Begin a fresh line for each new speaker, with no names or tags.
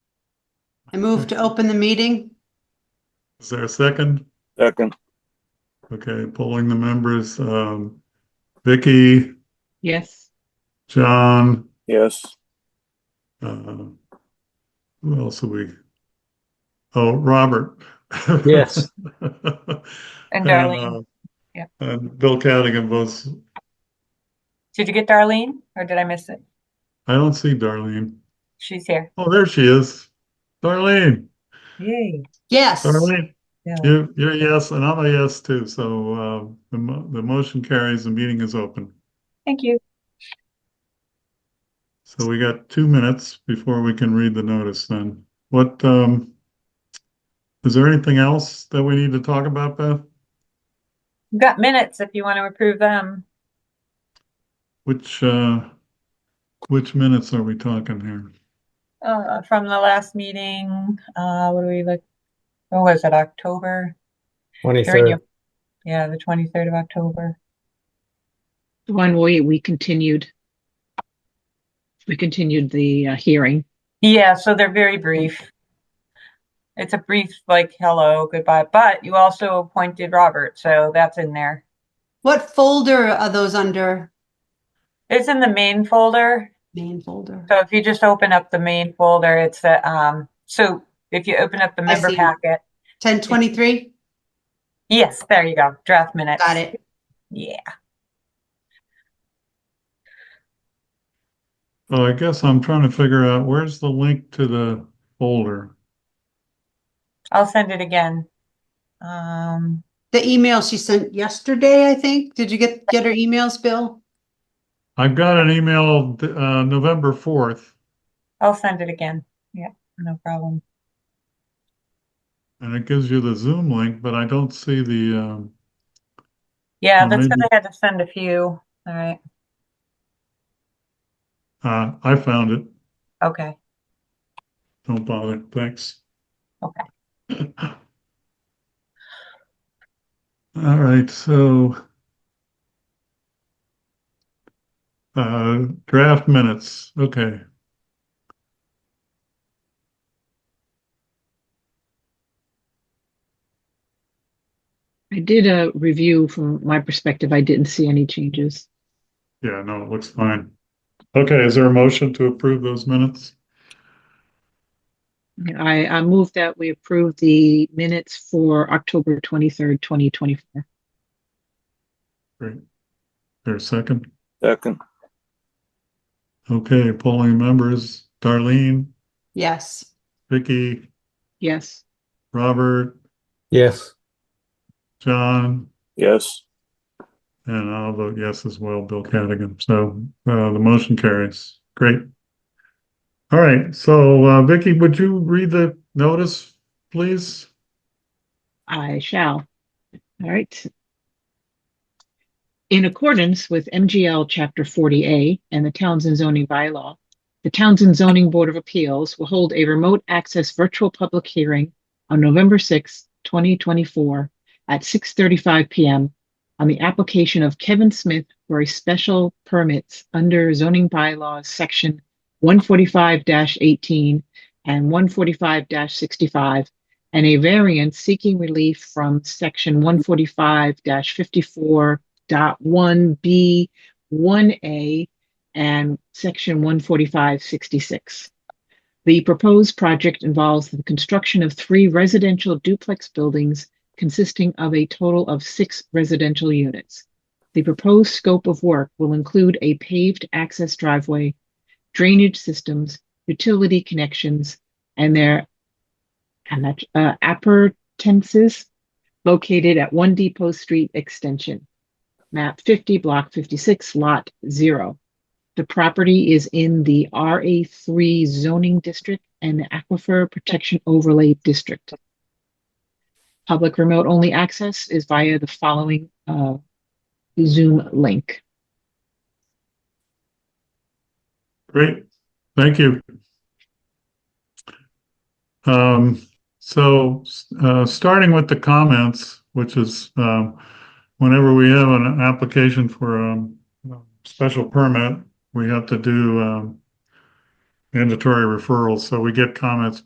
I move to open the meeting.
Is there a second?
Second,
Okay, polling the members, um, Vicky,
Yes.
John,
yes.
uh, who else are we? Oh, Robert.
Yes.
And Darlene.
uh,
Yeah.
And Bill Cadigan votes,
Did you get Darlene or did I miss it?
I don't see Darlene.
She's here.
Oh, there she is. Darlene,
Yay.
Yes.
Darlene,
Yeah.
you, you're a yes, and I'm a yes too, so, uh, the mo- the motion carries, the meeting is open.
Thank you.
So we got two minutes before we can read the notice then. What, um, is there anything else that we need to talk about, Beth?
We've Got minutes if you want to approve them.
Which, uh, which minutes are we talking here?
Uh, from the last meeting, uh, what do we look? What was it, October? They're in
23rd.
your- Yeah, the twenty-third of October.
The one we, we continued. We continued the uh, hearing.
Yeah, so they're very brief. It's a brief, like, hello, goodbye, but you also appointed Robert, so that's in there.
What folder are those under?
It's in the main folder.
Main folder.
So if you just open up the main folder, it's the, um, so if you open up the
I
member
see.
packet.
1023?
Yes, there you go, draft minutes.
Got it.
Yeah.
Oh, I guess I'm trying to figure out where's the link to the folder?
I'll send it again. Um,
The email she sent yesterday, I think. Did you get, get her emails, Bill?
I've got an email, uh, November fourth,
I'll send it again. Yeah, no problem.
and it gives you the Zoom link, but I don't see the, um,
Yeah,
Oh,
that's because
maybe-
I had to send a few. All right,
uh, I found it.
okay.
Don't bother, thanks.
Okay.
All right, so. Uh, draft minutes, okay.
I did a review from my perspective. I didn't see any changes.
Yeah, no, it looks fine. Okay, is there a motion to approve those minutes?
I, I move that we approve the minutes for October 23rd, 2024.
There's a second.
Second,
Okay, polling members, Darlene,
Yes.
Vicky,
Yes.
Robert,
Yes.
John,
yes.
and I'll vote yes as well, Bill Cadigan. So, uh, the motion carries. Great. All right, so, uh, Vicky, would you read the notice, please?
I shall. All right. In accordance with MGL Chapter 40A and the Townsend zoning bylaw, the Townsend Zoning Board of Appeals will hold a remote access virtual public hearing on November 6, 2024 at 6:35 PM on the application of Kevin Smith for a special permits under zoning bylaws Section 145-18 and 145-65 and a variance seeking relief from section one forty-five fifty-four one B one A and section one forty-five sixty-six. The proposed project involves the construction of three residential duplex buildings consisting of a total of six residential units. The proposed scope of work will include a paved access driveway, drainage systems, utility connections, and their and that's uh, appurtenances located at One Depot Street Extension, map 50, block 56, lot 0. The property is in the RA3 zoning district and the Aquifer Protection Overlay District. Public remote only access is via the following uh, Zoom link.
Great, thank you. Um, so, uh, starting with the comments, which is, um, whenever we have an application for a special permit, we have to do, um, mandatory referrals, so we get comments